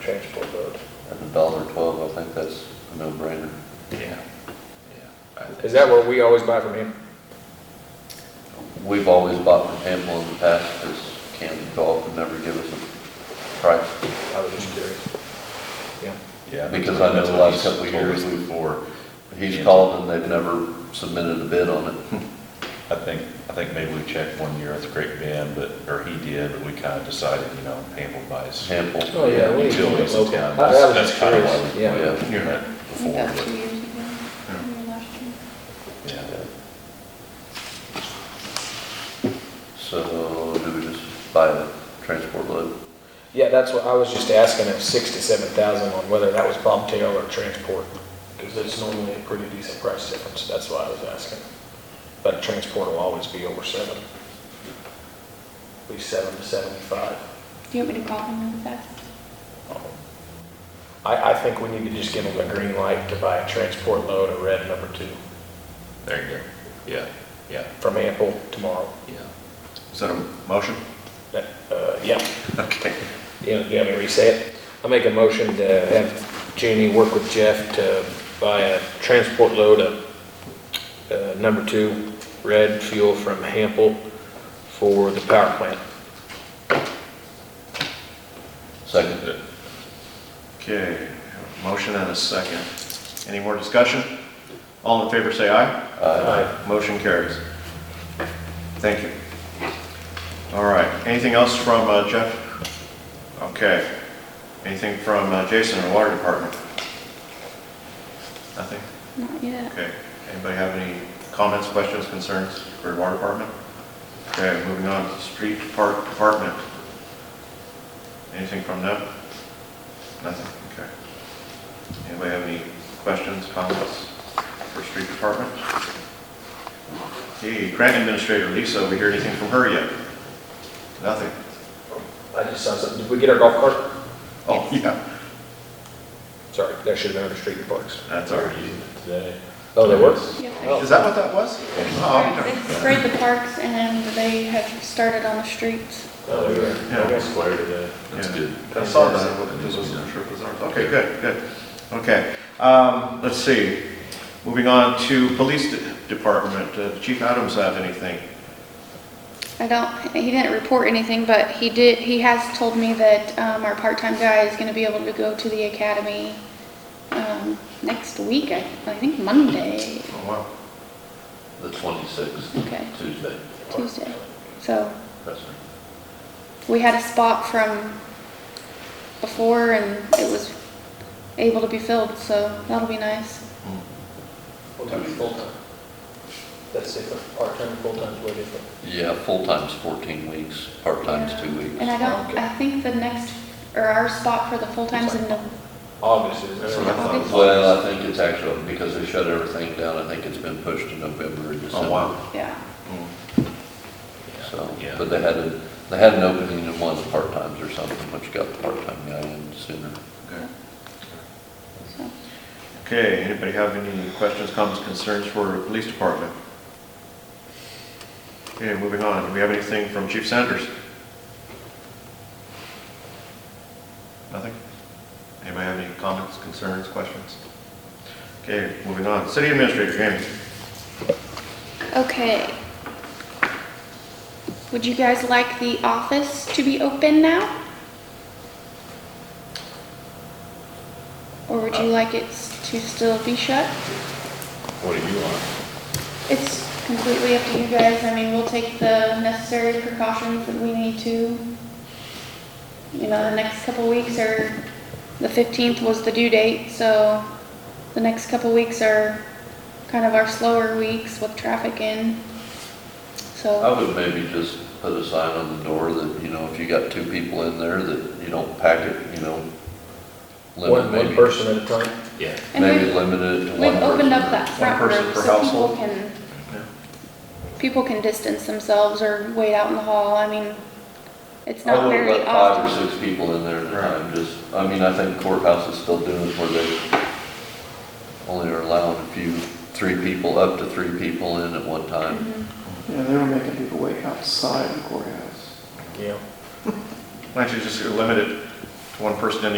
changeable vote. At a dollar twelve, I think that's a no-brainer. Yeah. Is that where we always buy from him? We've always bought from Hamble in the past, because Camden Golf would never give us a price. I was just curious. Yeah. Yeah, Because I know the last couple of years we've- Before, He's called and they've never submitted a bid on it. I think, I think maybe we checked one year at the Great Bend, but, or he did, but we kind of decided, you know, Hamble buys. Hamble. Oh, yeah. we- Utilities in local. town. I- I was That's just kinda curious. why we- Yeah. Oh, Yeah. You're not I before, think that was two but, years ago, maybe last year. yeah. So do we just buy a transport load? Yeah, that's what, I was just asking if six to seven thousand on whether that was bobtail or transport, because it's normally a pretty decent price difference, that's why I was asking. But a transport will always be over seven. At least seven to seventy-five. Do you want me to call him really fast? I, I think we need to just give them a green light to buy a transport load of red number two There you go. Yeah, yeah, from Ample tomorrow. yeah. Is that a motion? That- Uh, yeah, Okay. you know, you want me to reset it? I make a motion to have Jeannie work with Jeff to buy a transport load of, uh, number two, red fuel from Hample for the power plant. Second? Okay, motion and a second. Any more discussion? All in favor, say Uh, aye. Motion carries. Thank you. All right, anything else from uh, Jeff? Okay. Anything from uh, Jason in the Water Department? Nothing? Not yet. Okay. Anybody have any comments, questions, concerns for the Water Department? Okay, moving on to the Street Park Department. Anything from them? Nothing, okay. Anybody have any questions, comments for Street Department? Hey, Grant Administrator Lisa, we hear anything from her yet? Nothing? I just saw something, did we get our golf cart? Oh, yeah, Sorry, that should have been under street and parks. that's all right. Oh, there was? Yep. Oh. Is that what that was? Oh, okay. They sprayed the parks and then they have started on the streets. Oh, Yeah. there was. That's Yeah. good. I saw that, I wasn't sure if it was ours. Okay, good, good. Okay, um, let's see. Moving on to police de- department, Uh, Chief Adams have anything? I don't, he didn't report anything, but he did, he has told me that um, our part-time guy is going to be able to go to the academy um, next week, I I think Monday, Oh, wow. The twenty-sixth, okay, Tuesday. Tuesday. So That's it. we had a spot from before and it was able to be filled, so that'll be nice. full-time. That's different, part-time, full-time's way different. Yeah, full-time's fourteen weeks, part-time's two weeks. And I don't, I think the next, or our spot for the full-time's in the, August is. That's what I thought. it was. Well, I think it's actually, because they shut everything down, I think it's been pushed to November and December. Oh, wow. yeah. Mm. So, Yeah. but they had a, they had an opening in one of the part-times or something, which got the part-time guy in sooner. Okay. so. Okay, anybody have any questions, comments, concerns for the police department? Okay, moving on, do we have anything from Chief Sanders? Nothing? Anybody have any comments, concerns, questions? Okay, moving on, city administrator, Jamie. Okay. Would you guys like the office to be open now? Or would you like it s- to still be shut? What do you want? It's completely up to you guys. I mean, we'll take the necessary precautions that we need to. You know, the next couple weeks are, the 15th was the due date, so the next couple weeks are kind of our slower weeks with traffic in. I So, would maybe just put a sign on the door that, you know, if you got two people in there, that you don't pack it, you know. One, limit one maybe- person at a time. Yeah. and Oh, Maybe we've, limit it to one we've person. opened up that front person room per so people household. can, Yeah. people can distance themselves or wait out in the hall. I mean, it's I not wouldn't very let five often. or six people in there at a Right. time, just, I mean, I think courthouse is still doing it where they only are allowing a few, three people, up to three people in at one time. Yeah, they were making people wait outside the courthouse. Yeah. Why don't you just limit it to one person in